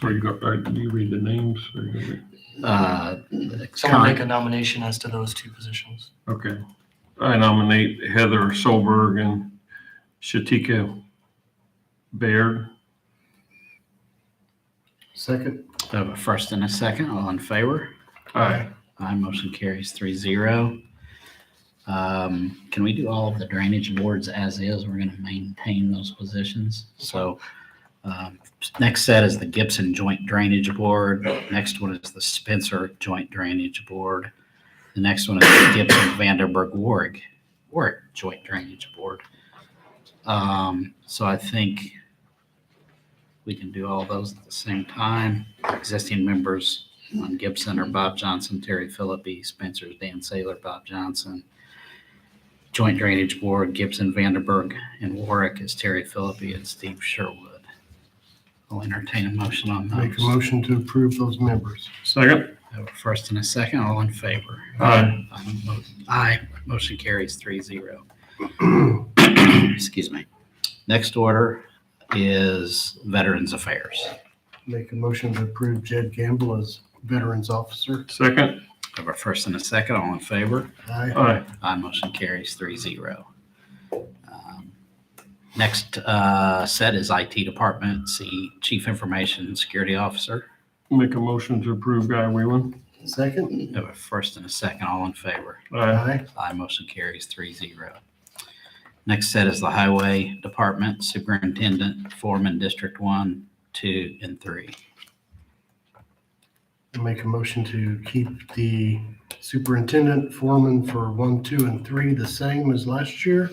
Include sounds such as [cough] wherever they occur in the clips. So you got, right, you read the names, or you- Uh, Someone make a nomination as to those two positions. okay. I nominate Heather Solberg and Shatika Baird. Second, I have a first and a second. All in favor? Aye. Aye, motion carries three zero. Um, can we do all of the drainage boards as is? We're gonna maintain those positions. So, um, next set is the Gibson Joint Drainage Board. Next one is the Spencer Joint Drainage Board. The next one is the Gibson Vanderburg Warwick, Warwick Joint Drainage Board. Um, so I think we can do all those at the same time. Existing members on Gibson or Bob Johnson, Terry Philippi, Spencer, Dan Saylor, Bob Johnson. Joint Drainage Board, Gibson, Vanderburg, and Warwick is Terry Philippi and Steve Sherwood. I'll entertain a motion on make a those. motion to approve those members. Second. I have a First and a second, all in favor? Aye. I'm mo- Aye, motion carries three zero. Excuse me. Next order is Veterans Affairs. Make a motion to approve Jed Gamble as Veterans Officer. Second. I have a first and a second, all in favor? Aye. Aye. Aye, motion carries three zero. Um, Next uh, set is IT Department, C Chief Information Security Officer. Make a motion to approve Guy Whalen. Second, We have a first and a second, all in favor. Aye. aye. Aye, motion carries three zero. Next set is the Highway Department Superintendent, Foreman, District One, Two, and Three. Make a motion to keep the superintendent foreman for one, two, and three the same as last year.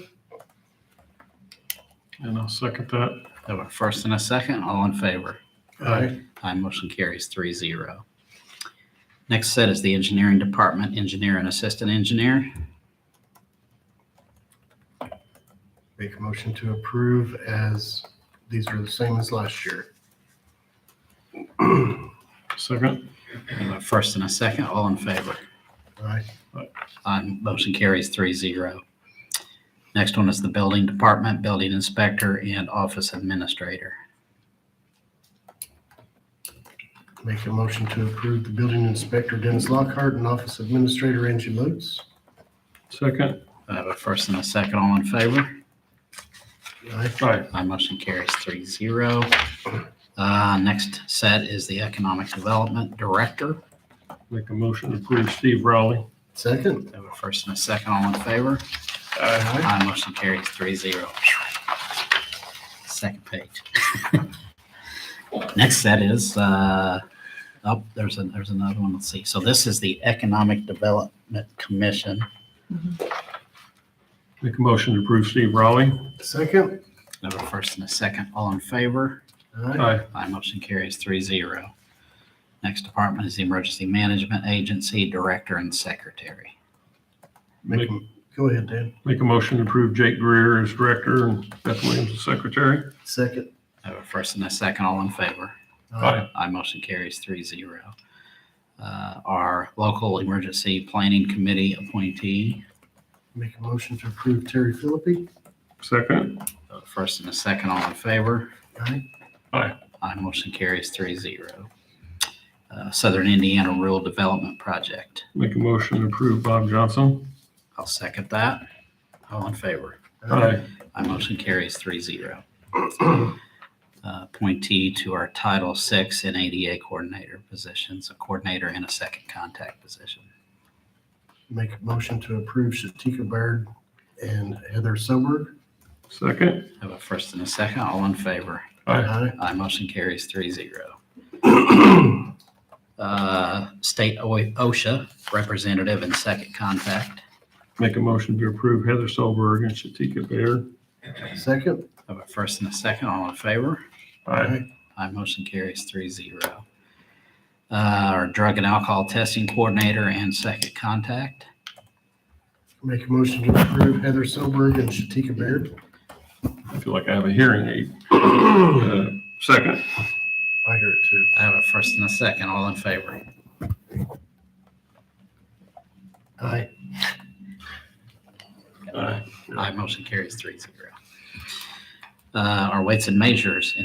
And I'll second that. We have a first and a second, all in favor. Aye. Aye, motion carries three zero. Next set is the Engineering Department, Engineer and Assistant Engineer. Make a motion to approve as these are the same as last year. Second. We have a First and a second, all in favor. Aye. Aye, motion carries three zero. Next one is the building department, building inspector, and office administrator. Make a motion to approve the building inspector Dennis Lockhart and office administrator Angie Lutz. Second. I have a first and a second, all in favor. Aye. Aye. Aye, motion carries three zero. Uh, next set is the economic development director. Make a motion to approve Steve Rowley. Second. I have a first and a second, all in favor. Aye. Aye. Aye, motion carries three zero. Second page. [laughs] Next set is, uh, oh, there's an, there's another one, let's see. So this is the Economic Development Commission. Make a motion to approve Steve Rowley. Second. We have a first and a second, all in favor. Aye. Aye. Aye, motion carries three zero. Next department is the Emergency Management Agency Director and Secretary. Make, a- go ahead, Dan. Make a motion to approve Jake Greer as director and Beth Williams as secretary. Second. I Uh, have a first and a second, all in favor. Aye. Aye, motion carries three zero. Uh, Our local emergency planning committee appointee, Make a motion to approve Terry Philippi. Second. uh, first and a second, all in favor. Aye. Aye, motion carries three zero. Uh, Southern Indiana Rural Development Project, Make a motion to approve Bob Johnson. I'll second that. All in favor. Aye. Aye, motion carries three zero. [clears throat] Uh, Appointee to our Title VI and ADA coordinator positions, a coordinator and a second contact position. Make a motion to approve Shatika Baird and Heather Soberg. Second. Have a first and a second, all in favor. Aye. Aye. Aye, motion carries three zero. [clears throat] Uh, State O- OSHA representative and second contact. Make a motion to approve Heather Solberg and Shatika Baird. Second. Have a first and a second, all in favor. Aye. Aye, motion carries three zero. Uh, Our drug and alcohol testing coordinator and second contact. Make a motion to approve Heather Soberg and Shatika Baird. I feel like I have a hearing aid. [clears throat] Uh, Second. I hear it too. I have a first and a second, all in favor. Aye. Aye. Aye, motion carries three zero. Uh, Our weights and measures